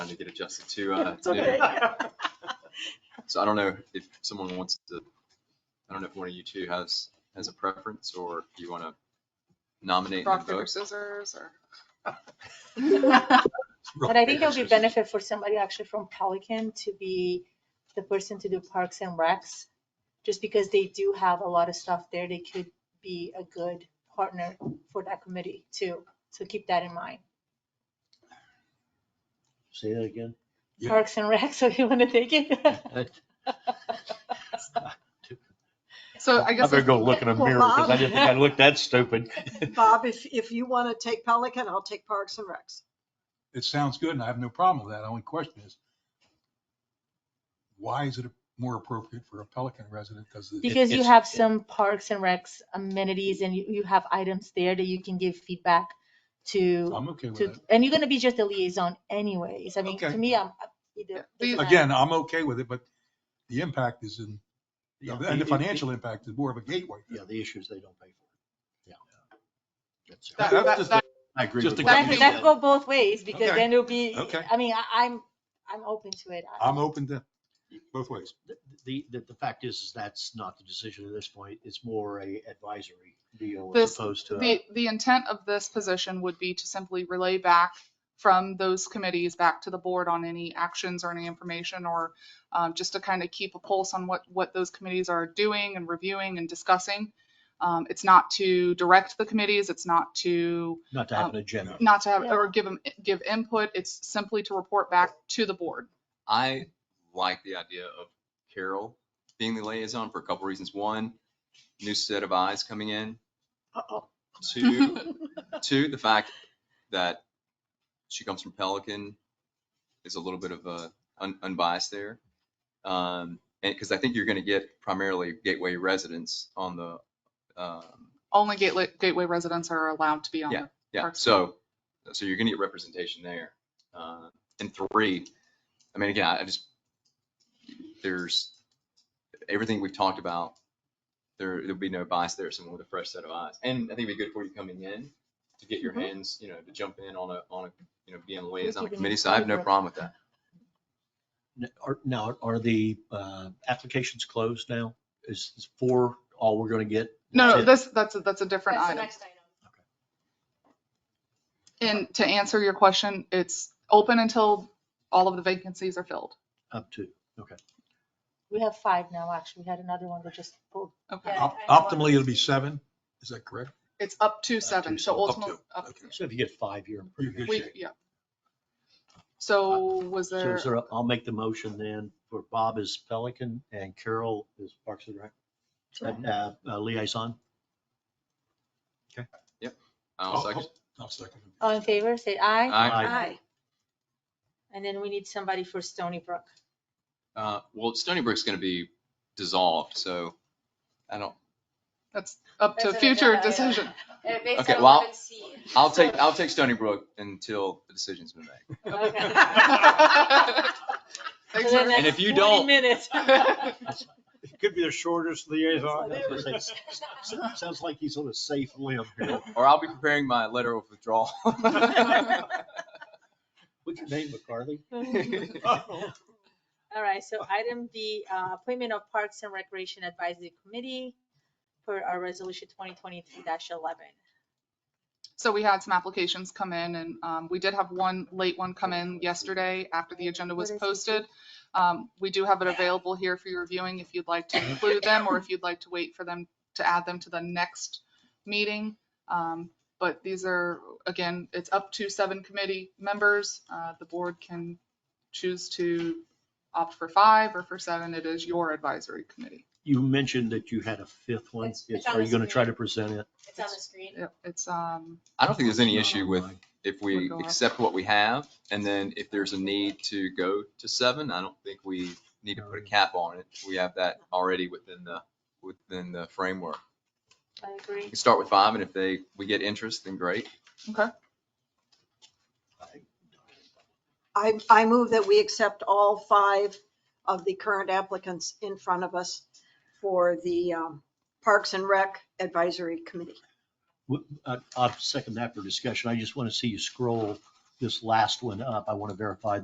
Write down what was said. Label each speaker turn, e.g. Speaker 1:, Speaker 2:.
Speaker 1: trying to get adjusted to. uh,
Speaker 2: It's okay.
Speaker 1: new. So I don't know if someone wants to, I don't know if one of you two has, has a preference or if you want to nominate and
Speaker 3: Rock, paper,
Speaker 1: vote.
Speaker 3: scissors, or?
Speaker 2: But I think it would be benefit for somebody actually from Pelican to be the person to do parks and recs. Just because they do have a lot of stuff there, they could be a good partner for that committee too. So keep that in mind.
Speaker 4: Say that again.
Speaker 5: Yeah.
Speaker 2: Parks and recs, so you want to take it?
Speaker 3: So I
Speaker 4: I
Speaker 3: guess.
Speaker 4: better
Speaker 3: if-
Speaker 4: go look in a
Speaker 6: Well,
Speaker 4: mirror because I didn't think I
Speaker 2: Bob-
Speaker 4: looked that stupid.
Speaker 6: Bob, if, if you want to take Pelican, I'll take Parks and Recs.
Speaker 5: It sounds good and I have no problem with that. Only question is, why is it more appropriate for a Pelican resident? Because
Speaker 2: Because you
Speaker 4: it's-
Speaker 2: have some parks and recs amenities and you, you have items there that you can give feedback to,
Speaker 5: I'm okay with
Speaker 2: to,
Speaker 5: it.
Speaker 2: and you're gonna be just a liaison anyways. I mean, to
Speaker 5: Okay.
Speaker 2: me, I'm. I-
Speaker 3: Yeah,
Speaker 2: it
Speaker 3: these-
Speaker 2: doesn't matter.
Speaker 5: Again, I'm okay with it, but the impact is in, and the financial impact is more of a gateway.
Speaker 4: Yeah, the issues they don't pay for. Yeah. That's it.
Speaker 3: That-
Speaker 5: That's
Speaker 3: that-
Speaker 5: just
Speaker 3: that-
Speaker 5: I agree
Speaker 4: Just
Speaker 5: with
Speaker 4: a
Speaker 5: that.
Speaker 2: That,
Speaker 4: Exactly.
Speaker 2: that go both ways, because
Speaker 5: Okay.
Speaker 2: then it'll be,
Speaker 5: Okay.
Speaker 2: I mean, I, I'm, I'm open to it. I-
Speaker 5: I'm open to both ways.
Speaker 4: The- The, the, the fact is, is that's not the decision at this point. It's more a advisory deal as
Speaker 3: This-
Speaker 4: opposed to. a-
Speaker 3: The, the intent of this position would be to simply relay back from those committees back to the board on any actions or any information or um, just to kind of keep a pulse on what, what those committees are doing and reviewing and discussing. Um, It's not to direct the committees, it's not to,
Speaker 4: Not to have
Speaker 3: um,
Speaker 4: an agenda.
Speaker 3: not to have,
Speaker 2: Yeah.
Speaker 3: or give them, give input, it's simply to report back to the board.
Speaker 1: I like the idea of Carol being the liaison for a couple reasons. One, new set of eyes coming in.
Speaker 6: Uh-oh.
Speaker 1: Two, two, the fact that she comes from Pelican is a little bit of a un- unbiased there. Um, and because I think you're going to get primarily Gateway residents on the, um,
Speaker 3: Only Gateway, Gateway residents are allowed to be on. there.
Speaker 1: yeah,
Speaker 3: Parks
Speaker 1: so, so you're gonna get representation there. Uh, And three, I mean, again, I I just, there's, everything we've talked about, there, there'll be no bias there, someone with a fresh set of eyes. And I think it'd be good for you coming in to get your hands, you know, to jump in on a, on a, you know, be on a liaison
Speaker 2: keeping
Speaker 1: committee, so I have no
Speaker 2: secret.
Speaker 1: problem with that.
Speaker 4: N- are- Now, are the uh, applications closed now? Is is four all we're going to get?
Speaker 3: No, no,
Speaker 4: That's it?
Speaker 3: this, that's, a- that's a different
Speaker 2: That's the
Speaker 3: item.
Speaker 2: next item.
Speaker 3: And to answer your question, it's open until all of the vacancies are filled.
Speaker 4: Up to.
Speaker 2: We have five now, actually. We had another one that just pulled.
Speaker 3: Okay.
Speaker 2: Yeah.
Speaker 5: Op- Optimally, it'll be seven. Is that correct?
Speaker 3: It's up to seven, so
Speaker 4: seven. Up
Speaker 3: ultimately, up-
Speaker 5: Okay.
Speaker 4: So if you get five, you're in pretty
Speaker 5: You're
Speaker 4: good
Speaker 5: good.
Speaker 3: we,
Speaker 4: shape.
Speaker 3: yeah. So was
Speaker 4: So
Speaker 3: there,
Speaker 4: is there, a- I'll make the motion then for Bob is Pelican and Carol is Parks and Rec. Uh, uh, Liaison.
Speaker 1: I'll
Speaker 5: I'll-
Speaker 1: second.
Speaker 5: Oh, I'll second. it.
Speaker 2: All in favor, say aye.
Speaker 1: Aye.
Speaker 4: Aye.
Speaker 6: Aye.
Speaker 2: And then we need somebody for Stony Brook.
Speaker 1: Uh, Well, Stony Brook's gonna be dissolved, so I don't,
Speaker 3: that's up to
Speaker 2: That's an
Speaker 3: future
Speaker 2: agenda item.
Speaker 3: decision.
Speaker 1: Okay, on well, I'll- I'll take, I'll take Stony Brook until the decision's been made.
Speaker 3: Thanks, Eric.
Speaker 1: And if you don't-
Speaker 2: Minutes.
Speaker 4: It could be the shortest liaison.
Speaker 6: That's what
Speaker 4: Sounds like he's on a safe limb here.
Speaker 1: Or I'll be preparing my letter of withdrawal.
Speaker 4: What's your name, McCarthy?
Speaker 5: Oh.
Speaker 2: All right, so item B, uh, appointment of Parks and Recreation Advisory Committee for our resolution twenty twenty-three eleven.
Speaker 3: So we had some applications come in and um, we did have one late one come in yesterday after the agenda was
Speaker 2: What is it?
Speaker 3: posted. Um, We do have it available here for your viewing if you'd like to include them or if you'd like to wait for them to add them to the next meeting. Um, But these are, again, it's up to seven committee members. Uh, The board can choose to opt for five or for seven. It is your advisory committee.
Speaker 4: You mentioned that you had a fifth one.
Speaker 2: It's- it's
Speaker 4: Are
Speaker 2: on
Speaker 4: you going to
Speaker 2: the
Speaker 4: try to present it?
Speaker 2: It's on the screen.
Speaker 3: Yep, It's, um,
Speaker 1: I don't think there's any issue with
Speaker 4: Online.
Speaker 1: if we
Speaker 3: Would go up.
Speaker 1: accept what we have, and then if there's a need to go to seven, I don't think we need to put a cap on it. We have that already within the, within the framework.
Speaker 2: I agree.
Speaker 1: We can start with five, and if they, we get interest, then great.
Speaker 3: okay.
Speaker 6: I, I move that we accept all five of the current applicants in front of us for the um, Parks and Rec Advisory Committee.
Speaker 4: I- I'll second that for discussion. I just want to see you scroll this last one up. I want to verify